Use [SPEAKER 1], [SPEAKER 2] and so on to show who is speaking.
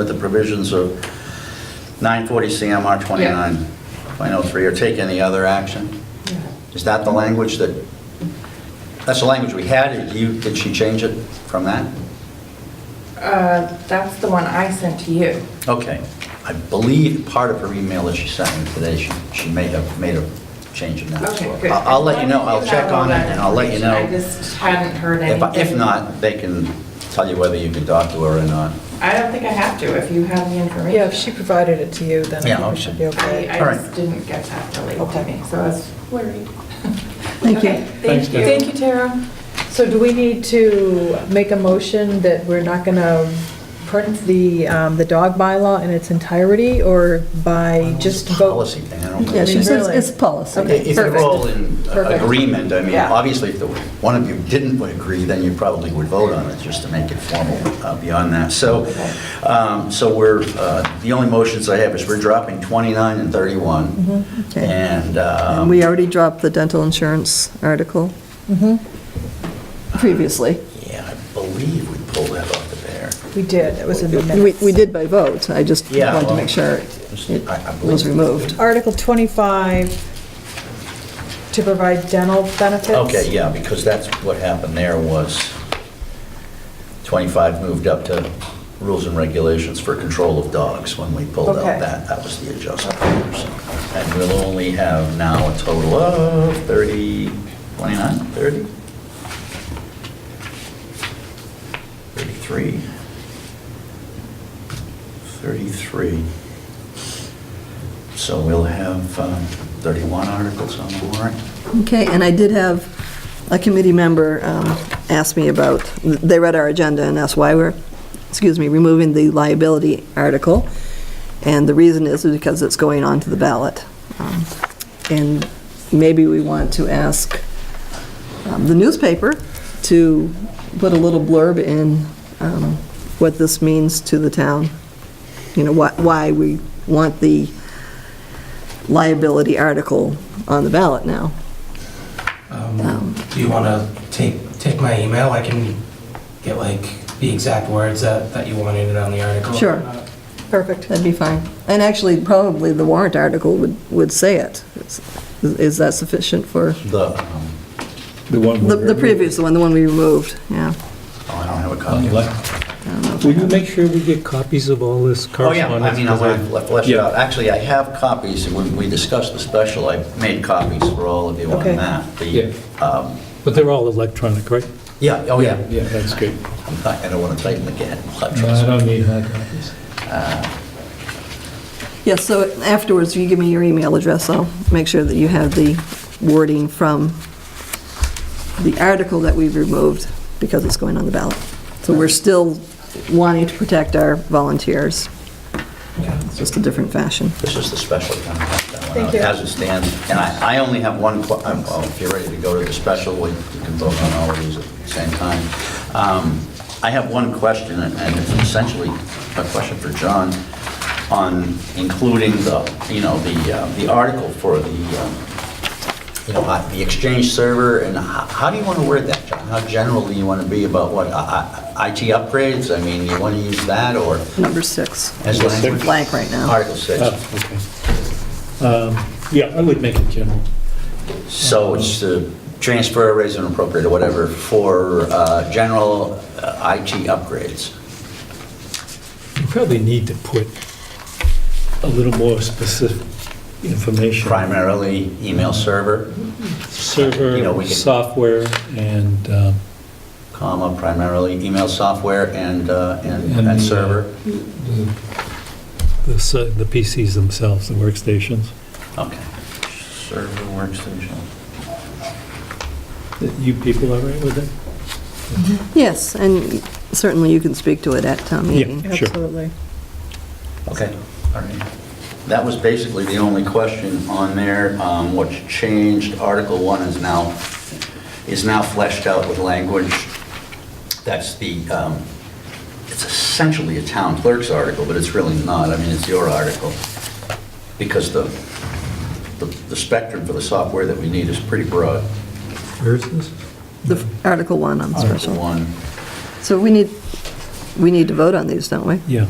[SPEAKER 1] with the provisions of 940 CMR 29.03, or take any other action? Is that the language that, that's the language we had, did you, did she change it from that?
[SPEAKER 2] Uh, That's the one I sent to you.
[SPEAKER 1] Okay, I believe part of her email that she sent me today, she, she may have made a change in that.
[SPEAKER 2] Okay,
[SPEAKER 1] So
[SPEAKER 2] good.
[SPEAKER 1] I'll I'll let you know, I'll check on it, and I'll let you know.
[SPEAKER 2] I just hadn't heard
[SPEAKER 1] If, I-
[SPEAKER 2] anything.
[SPEAKER 1] if not, they can tell you whether you can talk to her or not.
[SPEAKER 2] I don't think I have to, if you have the information.
[SPEAKER 3] Yeah, if she provided it to you, then
[SPEAKER 1] Yeah,
[SPEAKER 3] I think we
[SPEAKER 1] okay.
[SPEAKER 3] should be
[SPEAKER 2] I
[SPEAKER 3] okay.
[SPEAKER 2] I
[SPEAKER 1] All right.
[SPEAKER 2] just didn't get that relayed to
[SPEAKER 3] Okay.
[SPEAKER 2] me, so I was worried.
[SPEAKER 3] Thank you.
[SPEAKER 2] Okay,
[SPEAKER 4] Thanks,
[SPEAKER 2] Thank you.
[SPEAKER 4] Tara. Thank
[SPEAKER 2] you, Tara.
[SPEAKER 3] So do we need to make a motion that we're not going to print the, um, the dog bylaw in its entirety, or by just
[SPEAKER 1] It's a
[SPEAKER 3] vote?
[SPEAKER 1] Policy thing, I don't know.
[SPEAKER 5] Yeah, she says
[SPEAKER 3] Really?
[SPEAKER 5] it's policy.
[SPEAKER 3] Okay,
[SPEAKER 1] If you're
[SPEAKER 3] perfect.
[SPEAKER 1] all in
[SPEAKER 3] Perfect.
[SPEAKER 1] agreement, I mean,
[SPEAKER 3] Yeah.
[SPEAKER 1] obviously, if the, one of you didn't agree, then you probably would vote on it, just to make it formal uh, beyond that. So, um, so we're, uh, the only motions I have is we're dropping 29 and 31,
[SPEAKER 5] okay.
[SPEAKER 1] and, um,
[SPEAKER 5] And we already dropped the dental insurance article previously.
[SPEAKER 1] yeah, I believe we pulled that off the bear.
[SPEAKER 3] We did, it was in the
[SPEAKER 5] We
[SPEAKER 3] minutes.
[SPEAKER 5] we did by vote, I just
[SPEAKER 1] Yeah,
[SPEAKER 5] wanted to
[SPEAKER 1] well,
[SPEAKER 5] make
[SPEAKER 1] I-
[SPEAKER 5] sure
[SPEAKER 1] I
[SPEAKER 5] it
[SPEAKER 1] believe-
[SPEAKER 5] was removed.
[SPEAKER 3] Article 25, to provide dental benefits.
[SPEAKER 1] Okay, yeah, because that's what happened there was 25 moved up to rules and regulations for control of dogs when we pulled
[SPEAKER 3] Okay.
[SPEAKER 1] out that. That was the adjustment. And we'll only have now a total of 30, 29, 30? 33? 33. So we'll have um, 31 articles on the warrant.
[SPEAKER 5] Okay, and I did have a committee member um, ask me about, they read our agenda and asked why we're, excuse me, removing the liability article. And the reason is because it's going on to the ballot. Um, And maybe we want to ask um, the newspaper to put a little blurb in um, what this means to the town. You know, why- why we want the liability article on the ballot now.
[SPEAKER 4] Um, Do you want to take, take my email? I can get like the exact words that, that you wanted in on the article.
[SPEAKER 5] Sure.
[SPEAKER 3] Perfect.
[SPEAKER 5] That'd be fine. And actually, probably the warrant article would, would say it. Is- Is that sufficient for,
[SPEAKER 1] The, um,
[SPEAKER 6] The one.
[SPEAKER 5] the the previous one, the one we removed, yeah.
[SPEAKER 1] oh, I don't have a copy. of that.
[SPEAKER 6] Will you make sure we get copies of all this
[SPEAKER 1] Oh, yeah, I
[SPEAKER 6] correspondence?
[SPEAKER 1] mean, I left left it
[SPEAKER 6] Yeah.
[SPEAKER 1] out. Actually, I have copies, when we discussed the special, I made copies for all of you on
[SPEAKER 3] Okay.
[SPEAKER 1] that. The,
[SPEAKER 6] Yeah.
[SPEAKER 1] um,
[SPEAKER 6] But they're all electronic, right?
[SPEAKER 1] Yeah, oh, yeah.
[SPEAKER 6] Yeah, that's good.
[SPEAKER 1] I'm not- I don't want to type them again.
[SPEAKER 6] don't need hard copies.
[SPEAKER 5] Yeah, so afterwards, you give me your email address, I'll make sure that you have the wording from the article that we've removed because it's going on the ballot. So we're still wanting to protect our volunteers. It's just a different fashion.
[SPEAKER 1] This is the special contract that went
[SPEAKER 3] Thank
[SPEAKER 1] out as
[SPEAKER 3] you.
[SPEAKER 1] it stands. And I I only have one, que- um, well, if you're ready to go to the special, we you can vote on all of these at the same time. Um, I have one question, and and it's essentially a question for John, on including the, you know, the uh, the article for the, um, you know, uh, the Exchange server, and how how do you want to word that, John? How general do you want to be about what, uh, I- I- IT upgrades? I mean, you want to use that, or
[SPEAKER 5] Number six.
[SPEAKER 1] as language?
[SPEAKER 5] Blank right now.
[SPEAKER 1] Article 6.
[SPEAKER 6] Oh, okay. Um, Yeah, I would make it general.
[SPEAKER 1] So it's the transfer, raise and appropriate, or whatever, for uh, general uh, IT upgrades.
[SPEAKER 6] You probably need to put a little more specific information.
[SPEAKER 1] Primarily email server, You know, we
[SPEAKER 6] Server,
[SPEAKER 1] can-
[SPEAKER 6] software, and, um,
[SPEAKER 1] comma, primarily email software and, uh, and
[SPEAKER 6] And
[SPEAKER 1] and
[SPEAKER 6] the, uh,
[SPEAKER 1] server.
[SPEAKER 6] the- the s- the PCs themselves, the workstations.
[SPEAKER 1] Okay. Server workstation.
[SPEAKER 6] You people all right with that?
[SPEAKER 5] Yes, and certainly you can speak to it at town meeting.
[SPEAKER 6] Sure.
[SPEAKER 3] Absolutely.
[SPEAKER 1] Okay, all right. That was basically the only question on there. Um, What's changed, Article 1 is now, is now fleshed out with language. That's the, um, it's essentially a town clerk's article, but it's really not. I mean, it's your article. Because the, the the spectrum for the software that we need is pretty broad.
[SPEAKER 6] Where is this?
[SPEAKER 5] The Article 1 on the
[SPEAKER 1] Article
[SPEAKER 5] special.
[SPEAKER 1] 1.
[SPEAKER 5] So we need, we need to vote on these, don't we?
[SPEAKER 6] Yeah.